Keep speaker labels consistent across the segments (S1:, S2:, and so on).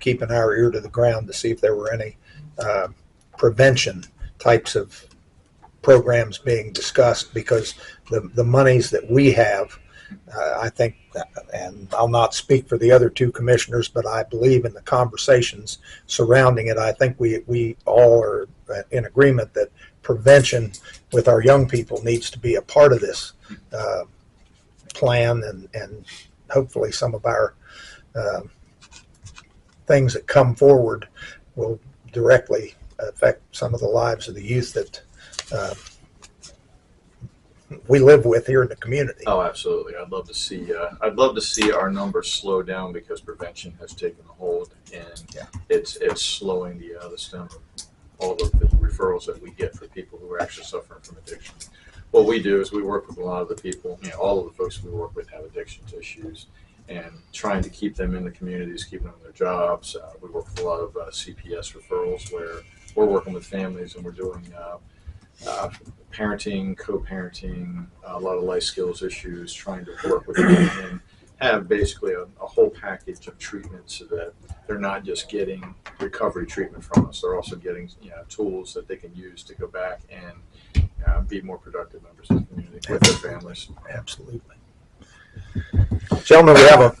S1: keeping our ear to the ground to see if there were any uh, prevention types of programs being discussed because the, the monies that we have, uh, I think, and I'll not speak for the other two commissioners, but I believe in the conversations surrounding it, I think we, we all are uh, in agreement that prevention with our young people needs to be a part of this uh, plan and, and hopefully some of our um, things that come forward will directly affect some of the lives of the youth that uh, we live with here in the community.
S2: Oh, absolutely. I'd love to see. Uh, I'd love to see our numbers slow down because prevention has taken a hold, and
S1: Yeah.
S2: it's it's slowing the uh, the stem of all of the referrals that we get for people who are actually suffering from addiction. What we do is we work with a lot of the people. You know, all of the folks we work with have addiction issues, and trying to keep them in the communities, keeping them in their jobs. Uh, we work with a lot of uh, CPS referrals where we're working with families and we're doing. Uh, uh, parenting, co-parenting, a lot of life skills issues, trying to work with them and have basically a, a whole package of treatment so that they're not just getting recovery treatment from us. They're also getting you know, tools that they can use to go back and uh, be more productive members of the community with their families.
S1: Absolutely. Gentlemen, we have a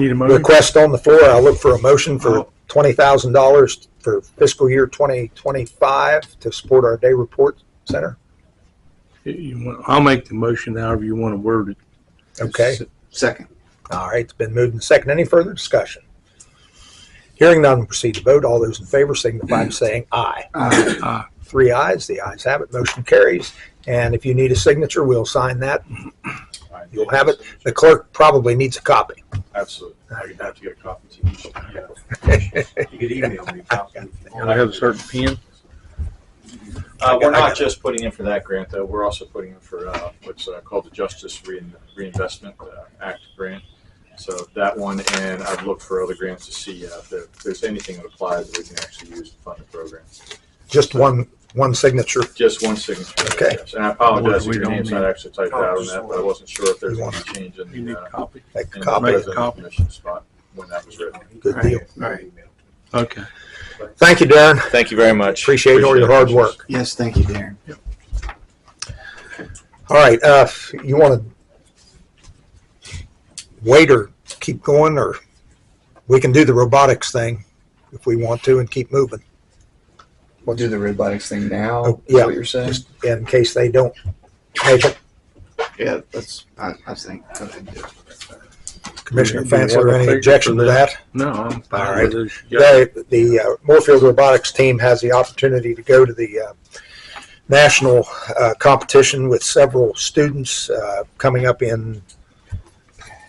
S3: Need a motion?
S1: request on the floor. I'll look for a motion for
S3: Oh.
S1: twenty thousand dollars for fiscal year twenty twenty-five to support our day report center.
S3: You want- I'll make the motion however you want to word it. uh,
S1: Okay,
S4: Second.
S1: all right, it's been moved and second. Any further discussion? Hearing none, we'll proceed to vote. All those in favor signify by saying aye.
S4: Aye.
S3: Aye.
S1: Three ayes, the ayes have it, motion carries. And if you need a signature, we'll sign that. You'll have it. The clerk probably needs a copy.
S2: Absolutely. I have to get a copy to each. Yeah.
S5: You could email me. a copy if you
S3: I have a certain pen.
S2: Uh,
S1: I
S2: we're
S1: got- I
S2: not
S1: got-
S2: just putting in for that grant, though. We're also putting in for uh, what's uh, called the Justice Rein- Reinvestment uh, Act grant. So that one, and I've looked for other grants to see uh, if, there, if there's anything that applies that we can actually use to fund the program.
S1: Just one, one signature.
S2: Just one signature.
S1: Okay.
S2: yes. And I apologize if
S3: We
S2: your
S3: don't
S2: name's
S3: need-
S2: not actually typed out on that, but I wasn't sure if there's
S1: You
S2: any
S1: want-
S2: change in
S3: You need
S2: the,
S3: a
S2: uh,
S3: copy?
S1: Make a
S2: in
S1: copy.
S2: the
S3: Make a
S2: resident
S3: copy.
S2: commission spot when that was written.
S5: want.
S1: Good deal.
S5: All right.
S3: Okay.
S1: Thank you, Darren.
S6: Thank you very much.
S1: Appreciate all your hard work.
S4: Yes, thank you, Darren.
S1: All right, uh, you want to wait or keep going, or we can do the robotics thing if we want to and keep moving
S4: We'll do the robotics thing now.
S1: Oh,
S4: is
S1: yeah.
S4: what you're saying?
S1: in case they don't make it.
S4: Yeah, that's. I, I think. go ahead and do it.
S1: Commissioner
S3: Do you want
S1: Fansler,
S3: a
S1: any
S3: figure
S1: objection
S3: for
S1: to that?
S3: No, I'm
S1: All
S3: fine
S1: right.
S3: with this.
S1: They, the uh, Moorfield Robotics team has the opportunity to go to the uh, national uh, competition with several students uh, coming up in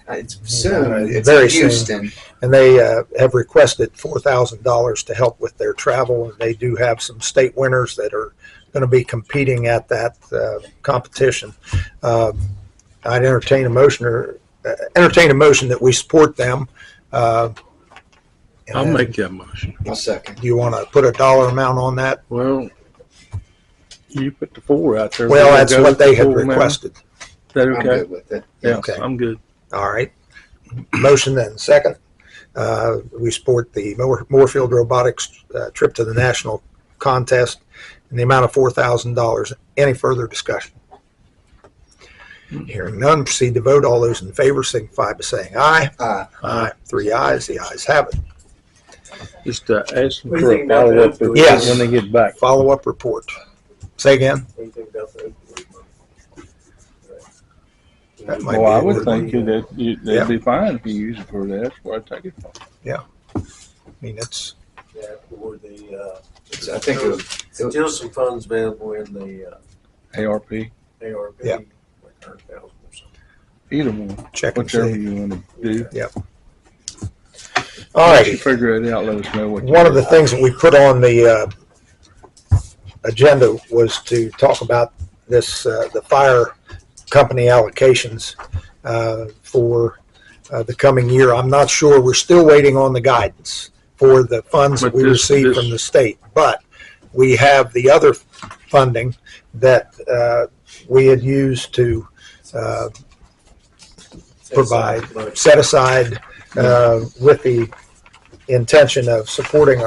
S4: It's soon. it's
S1: very
S4: in Houston.
S1: and they uh, have requested four thousand dollars to help with their travel. And they do have some state winners that are going to be competing at that uh, competition. Uh, I'd entertain a motion or uh, entertain a motion that we support them. Uh, and
S3: I'll make that motion.
S4: I'll second.
S1: Do you want to put a dollar amount on that?
S3: Well, you put the four out there.
S1: Well,
S3: We'll
S1: that's
S3: go
S1: what
S3: with the
S1: they had
S3: four now.
S1: requested.
S3: Is that
S4: I'm
S3: okay?
S4: good with it.
S3: Yeah,
S1: Okay.
S3: I'm good.
S1: All right. Motion and second. Uh, we support the Moor- Moorfield Robotics uh, trip to the national contest in the amount of $4,000. Any further discussion? Hearing none, proceed to vote. All those in favor signify by saying aye.
S4: Uh,
S3: Uh,
S1: Three ayes, the ayes have it.
S3: just uh, ask them
S5: What do you
S3: for a follow-up
S5: think about that?
S3: report
S1: Yes.
S3: when they get back.
S1: Follow-up report. Say again?
S5: What do you think about the opioid money?
S1: That might
S3: Well, I
S1: be a
S3: would
S1: good one.
S3: think that you-
S1: Yeah.
S3: that'd be fine if you use it for that. That's where I take it from.
S1: I mean, it's,
S5: That or the, uh,
S4: so I think it was,
S5: still some funds available in the uh,
S3: ARP,
S5: ARP.
S1: Yeah.
S5: Like a hundred thousand or something.
S3: either one,
S1: check and
S3: whichever
S1: see.
S3: you want to do.
S1: All
S3: Once you
S1: righty.
S3: Figure it out, let us know what. you
S1: One of
S3: do.
S1: the things that we put on the uh, agenda was to talk about this, uh, the fire company allocations uh, for uh, the coming year. I'm not sure, we're still waiting on the guidance for the funds that
S3: But
S1: we
S3: this-
S1: receive
S3: this-
S1: from the state. But we have the other funding that uh, we had used to uh,
S5: Set aside
S1: Provide.
S5: money.
S1: set aside uh, with the intention of supporting our.